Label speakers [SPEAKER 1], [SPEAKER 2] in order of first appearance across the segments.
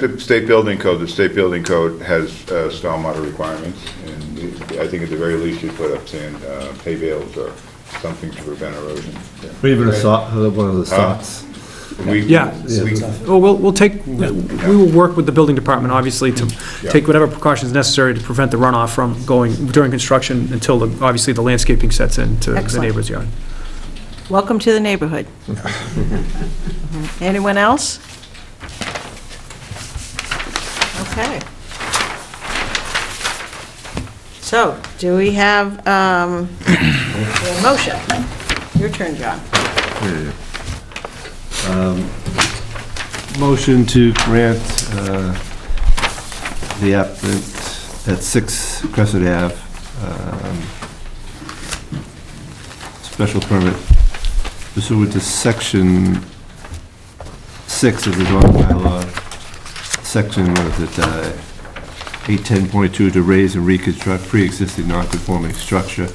[SPEAKER 1] The state building code, the state building code has uh, stormwater requirements, and I think at the very least you put up sand, uh, hay bales or something to prevent erosion.
[SPEAKER 2] Or even a sot, one of the sots.
[SPEAKER 1] We-
[SPEAKER 3] Yeah.
[SPEAKER 1] we-
[SPEAKER 3] Well, we'll, we'll take, we will work with the building department, obviously, to
[SPEAKER 1] Yeah.
[SPEAKER 3] take whatever precautions necessary to prevent the runoff from going during construction until, the obviously, the landscaping sets into the
[SPEAKER 4] Excellent.
[SPEAKER 3] neighbor's yard.
[SPEAKER 4] Welcome to the neighborhood. Anyone else? Okay. So, do we have um, a motion? Your turn, John.
[SPEAKER 2] Um, Motion to grant uh, the applicant at 6 Crescent Ave, um, special permit pursuant to section 6 of the zoning bylaw, section, what is it, uh, 810.2, to raise and reconstruct pre-existing non-conforming structure,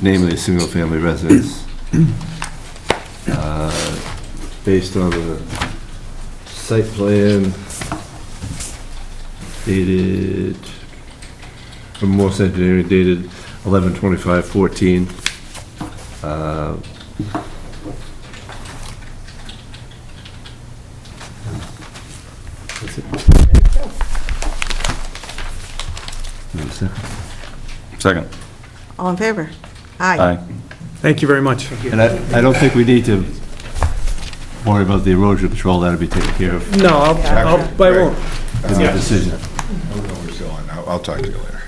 [SPEAKER 2] namely a single-family residence, Uh, based on the site plan dated, from Morse Engineering dated 11/25/14. Uh, that's it. Wait a second.
[SPEAKER 5] Second.
[SPEAKER 4] All in favor? Aye.
[SPEAKER 5] Aye.
[SPEAKER 3] Thank you very much.
[SPEAKER 2] And I, I don't think we need to worry about the erosion control, that'll be taken care of
[SPEAKER 3] No, I'll- I'll, but I won't.
[SPEAKER 2] in the decision.
[SPEAKER 1] We're still on. I'll I'll talk to you later.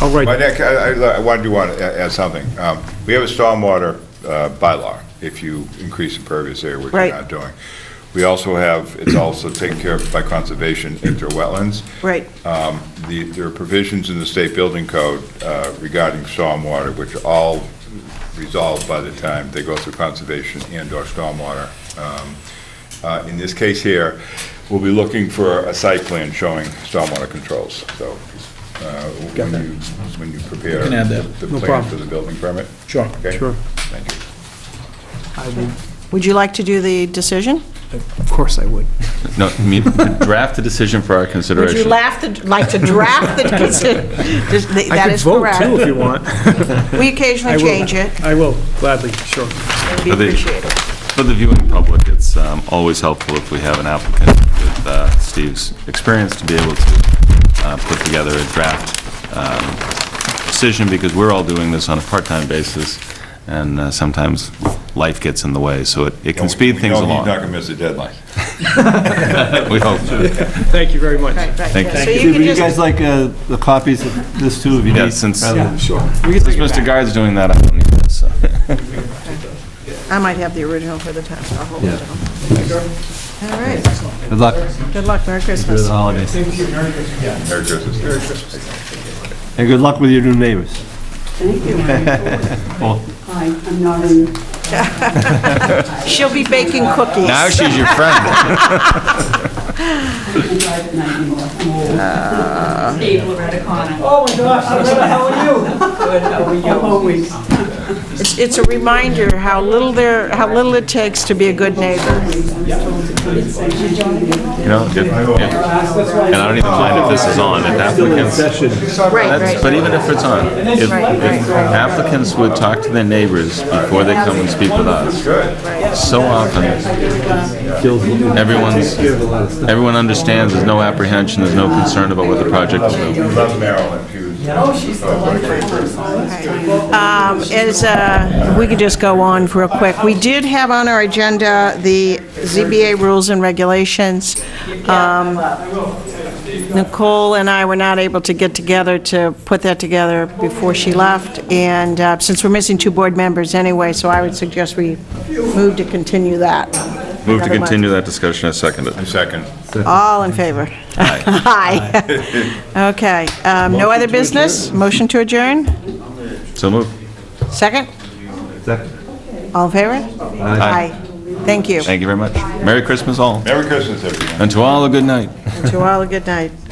[SPEAKER 3] I'll
[SPEAKER 1] My
[SPEAKER 3] write,
[SPEAKER 1] neck, I, I- I wanted to want to add something. Um, We have a stormwater uh, bylaw, if you increase impervious area, which you're
[SPEAKER 4] Right.
[SPEAKER 1] not doing. We also have, it's also taken care of by conservation into wetlands.
[SPEAKER 4] Right,
[SPEAKER 1] Um, the- There are provisions in the state building code uh, regarding stormwater, which are all resolved by the time they go through conservation and/or stormwater. Um, uh, In this case here, we'll be looking for a site plan showing stormwater controls, so uh, when you, when you prepare
[SPEAKER 6] can add that.
[SPEAKER 1] the
[SPEAKER 3] No
[SPEAKER 1] plan
[SPEAKER 3] problem.
[SPEAKER 1] for the building permit,
[SPEAKER 6] Sure.
[SPEAKER 1] okay?
[SPEAKER 3] Sure.
[SPEAKER 1] Thank you.
[SPEAKER 4] would you like to do the decision?
[SPEAKER 3] of course I would.
[SPEAKER 5] No, I mean, to draft a decision for our
[SPEAKER 4] Would you
[SPEAKER 5] consideration.
[SPEAKER 4] laugh, to- like to draft the decision? Just- th-
[SPEAKER 3] I
[SPEAKER 4] That
[SPEAKER 3] could
[SPEAKER 4] is
[SPEAKER 3] vote,
[SPEAKER 4] correct.
[SPEAKER 3] too, if you want.
[SPEAKER 4] We
[SPEAKER 3] I
[SPEAKER 4] occasionally
[SPEAKER 3] will.
[SPEAKER 4] change it,
[SPEAKER 3] I will, gladly, sure.
[SPEAKER 4] it'd be
[SPEAKER 5] Are they-
[SPEAKER 4] appreciated.
[SPEAKER 5] For the viewing public, it's um, always helpful if we have an applicant with uh, Steve's experience to be able to uh, put together a draft um, decision, because we're all doing this on a part-time basis, and uh, sometimes life gets in the way, so it it can speed
[SPEAKER 1] We
[SPEAKER 5] things
[SPEAKER 1] know he's not
[SPEAKER 5] along.
[SPEAKER 1] going to miss a deadline.
[SPEAKER 5] We hope.
[SPEAKER 3] Thank you very much.
[SPEAKER 4] Right, right,
[SPEAKER 5] Thank
[SPEAKER 4] yeah. So
[SPEAKER 5] you.
[SPEAKER 2] Steve,
[SPEAKER 4] you
[SPEAKER 2] would you
[SPEAKER 4] can
[SPEAKER 2] guys
[SPEAKER 4] just,
[SPEAKER 2] like uh, the copies of this too, if you need?
[SPEAKER 5] Yeah, since
[SPEAKER 2] rather than-
[SPEAKER 5] since
[SPEAKER 3] Sure.
[SPEAKER 5] Mr. Guard's doing that, I don't need this, so.
[SPEAKER 4] I might have the original for the town, so I'll hold it
[SPEAKER 2] Yeah.
[SPEAKER 4] down. All right,
[SPEAKER 2] Good luck for
[SPEAKER 4] good luck, Merry
[SPEAKER 2] the
[SPEAKER 4] Christmas.
[SPEAKER 2] holidays.
[SPEAKER 1] Merry Christmas.
[SPEAKER 2] And good luck with your new neighbors.
[SPEAKER 7] Thank you.
[SPEAKER 2] Well,
[SPEAKER 7] Hi, I'm not in,
[SPEAKER 4] She'll be baking cookies.
[SPEAKER 5] Now she's your friend.
[SPEAKER 7] I can't drive at night anymore. I'm old.
[SPEAKER 8] Steve Loretta Connor.
[SPEAKER 7] I'm always.
[SPEAKER 4] It's- It's a reminder how little there, how little it takes to be a good neighbor.
[SPEAKER 5] You know, if- if- and I don't even mind if this is on, if applicants,
[SPEAKER 4] Right,
[SPEAKER 5] that's- but even if it's on, if if applicants would talk to their neighbors before they come and speak with us, so often, everyone's, everyone understands, there's no apprehension, there's no concern about what the project will do.
[SPEAKER 1] We love Marilyn, she was.
[SPEAKER 4] Um, As, uh, we could just go on real quick. We did have on our agenda the ZBA rules and regulations. Um, Nicole and I were not able to get together to put that together before she left, and uh, since we're missing two board members anyway, so I would suggest we move to continue that.
[SPEAKER 5] Move to continue that discussion, I second it.
[SPEAKER 1] Second.
[SPEAKER 4] All in favor? Aye. Aye. Okay, um, no other business? Motion to adjourn?
[SPEAKER 5] So move.
[SPEAKER 4] Second?
[SPEAKER 2] Second.
[SPEAKER 4] All in favor? Aye. Thank you.
[SPEAKER 5] Thank you very much. Merry Christmas all,
[SPEAKER 1] Merry Christmas, everyone.
[SPEAKER 5] and to all a good night.
[SPEAKER 4] To all, a good night.